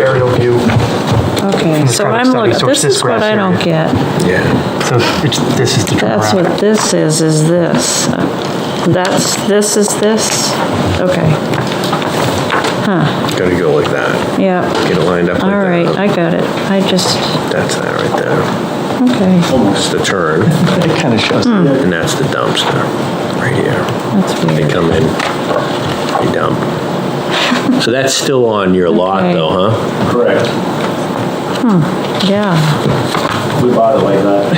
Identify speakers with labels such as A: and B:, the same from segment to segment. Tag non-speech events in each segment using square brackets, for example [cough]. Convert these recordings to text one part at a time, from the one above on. A: aerial view.
B: Okay, so
A: traffic
B: I'm
A: study,
B: looking,
A: so it's
B: this
A: this
B: is what
A: grass
B: I don't get.
A: Yeah. So it's, this is the
B: That's
A: turnaround.
B: what this is, is this. That's, this is this? Okay,
C: Gotta go like that.
B: yeah,
C: Get it lined up like
B: all right,
C: that.
B: I got it. I just,
C: That's that right there.
B: okay,
C: It's the turn,
A: It kind of shows.
B: Hmm.
C: and that's the dumpster, right here.
B: that's
C: They
B: weird.
C: come in, they dump.
B: [laughs]
C: So that's still on your lot
B: Okay.
C: though, huh?
D: Correct.
B: Yeah,
D: We bought it like that.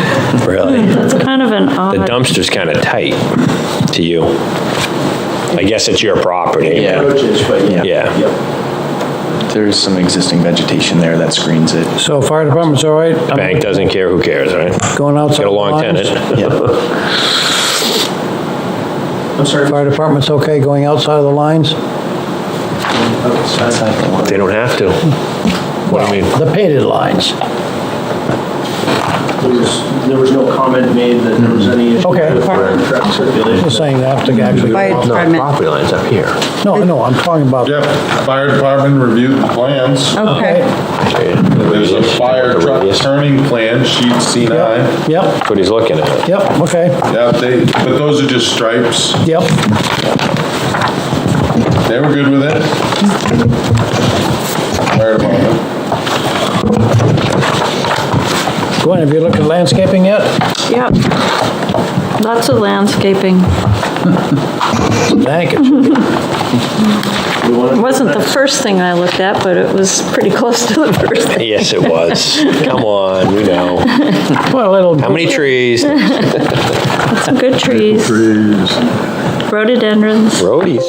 C: Really?
B: that's kind of an
E: The
B: odd,
E: dumpster's kind of tight to you. I guess it's your property.
D: Roaches, but yeah.
E: Yeah.
D: Yep.
F: There's some existing vegetation there that screens it.
G: So fire department's all right? I'm
E: Bank doesn't care, who cares, right?
G: Going outside.
E: Got a long
G: lines.
E: tenant.
D: I'm sorry.
G: Fire department's okay going outside of the lines?
D: That's not the one.
E: They don't have to. What do you mean?
G: The painted lines.
D: There was, there was no comment made that there was any issue.
G: Okay.
D: with Truck circulation.
G: Just saying that to actually,
H: Fire
C: No, the
H: department,
C: property line's up here.
G: no, no, I'm talking about,
I: Yep, fire department reviewed the plans.
H: okay,
I: There's a fire truck turning plan, sheet C nine.
G: yep,
E: That's what he's looking at.
G: yep, okay,
I: Yeah, they, but those are just stripes.
G: yep.
I: They were good with it. Fire department.
G: Gwen, have you looked at landscaping yet?
B: yep. Lots of landscaping.
G: Thank you.
B: It wasn't the first thing I looked at, but it was pretty close to the first thing.
E: [laughs] Yes, it was. Come on, we know.
G: Well, it'll,
E: How many [laughs] trees?
B: Some good trees, rhododendrons.
E: Roadies.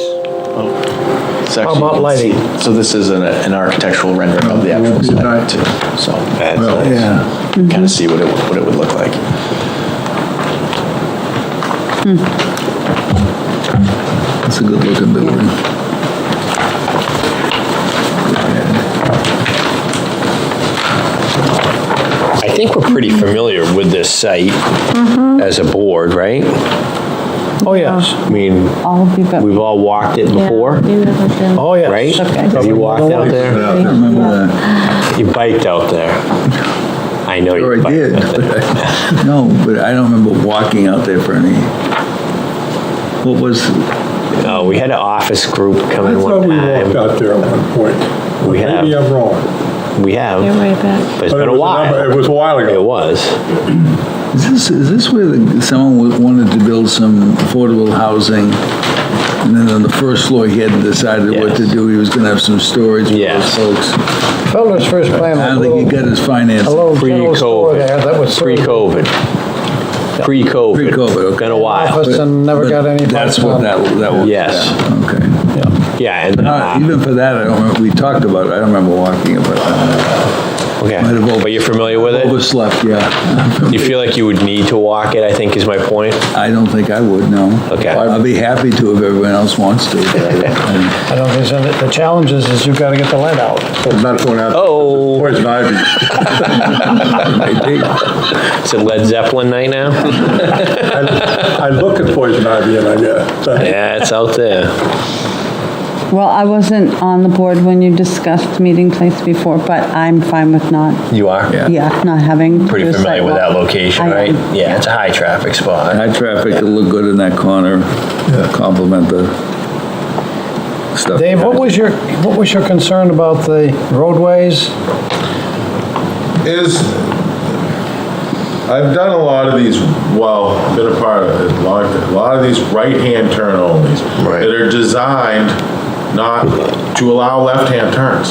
F: It's actually-
G: about lighting?
F: So this is an, an architectural rendering of the actual site too, so
E: That's nice.
G: yeah,
F: kind of see what it, what it would look like.
J: It's a good looking building.
E: I think we're pretty familiar with this site as a board, right?
G: oh, yes,
E: I mean,
H: all of you got,
E: we've all walked it
B: Yeah,
E: before,
B: you haven't been-
G: oh, yes.
E: right?
H: Okay.
E: Have you walked out there?
J: I don't remember that.
E: You biked out there. I know
J: Or
E: you
J: I
E: biked.
J: did, but I, [laughs] no, but I don't remember walking out there for any, what was,
E: No, Uh, we had an office group come in one time.
I: out there at one point.
E: We have. Maybe
I: I'm wrong.
E: We have,
B: They're
E: but
B: way back.
E: it's been a while.
I: was a while
E: It was.
J: is this, is this where the- someone wa- wanted to build some affordable housing? And then on the first floor, he hadn't decided what to
E: Yes.
J: do, he was gonna have some storage for those
E: Yes.
J: folks.
G: Felder's first plan
J: I
G: was a
J: don't think he
G: little,
J: got his
G: a
J: financing.
G: little general store
E: Pre-COVID.
G: there that was.
E: Pre-COVID. Pre-COVID.
J: Pre-COVID, okay.
E: Been a while.
G: Office and never
J: But
G: got any.
J: That's what that, that was.
E: Yes.
J: Okay.
E: Yeah, and,
J: Uh,
E: uh,
J: Even for that, I don't remember, we talked about it, I don't remember walking about that. Might have
E: okay.
J: over-
E: But you're familiar with it?
J: Overslept, yeah.
E: You feel like you would need to walk it, I think is my point.
J: I don't think I would, no.
E: Okay.
J: I'd be happy to if everyone else wants
E: [laughs]
J: to. but I-
G: I don't think so. The challenge is, is you've got to get the lead out.
I: Not going out.
E: Oh. [laughs]
I: Poison ivy.
J: I think-
E: Is it Led Zeppelin night now?
I: I look at poison ivy and I get. uh,
E: Yeah, it's out there.
H: well, I wasn't on the board when you discussed meeting place before, but I'm fine with not,
E: You are?
H: yeah, not having.
E: Pretty
H: to do a
E: familiar with that
H: sidewalk.
E: location,
H: I am.
E: right? Yeah, it's a high traffic spot.
J: High traffic, it'll look good in that corner, compliment the stuff.
G: Dave, what was your, what was your concern about the roadways?
I: Is, I've done a lot of these, well, been a part of it, a lot, a lot of these right-hand turn onlys.
C: Right.
I: That are designed not to allow left-hand turns.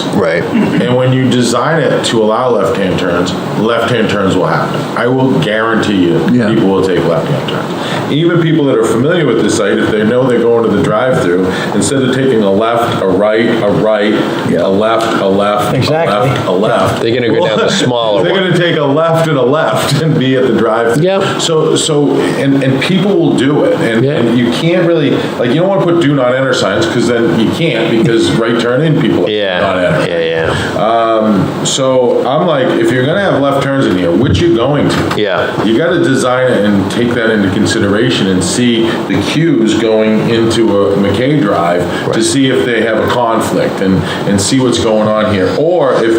I: And when you design it to allow left-hand turns, left-hand turns will happen. I will guarantee you,
J: Yeah.
I: people will take left-hand turns. Even people that are familiar with the site, if they know they're going to the drive-through, instead of taking a left, a right, a right, a left, a left, a
G: Exactly.
I: left, a left.
E: They're gonna go down the smaller
I: They're
E: one.
I: gonna take a left and a left and be at the drive-through.
E: Yep.
I: So, so, and, and people will do it, and, and you can't really, like, you don't wanna put do not enter signs, because then you can't, because right turn in people are not
E: Yeah,
I: enter.
E: yeah, yeah.
I: So I'm like, if you're gonna have left turns in here, which you going to?
E: Yeah.
I: You gotta design it and take that into consideration and see the cues going into a McKay Drive to see if they have a conflict and, and see what's going on here. Or if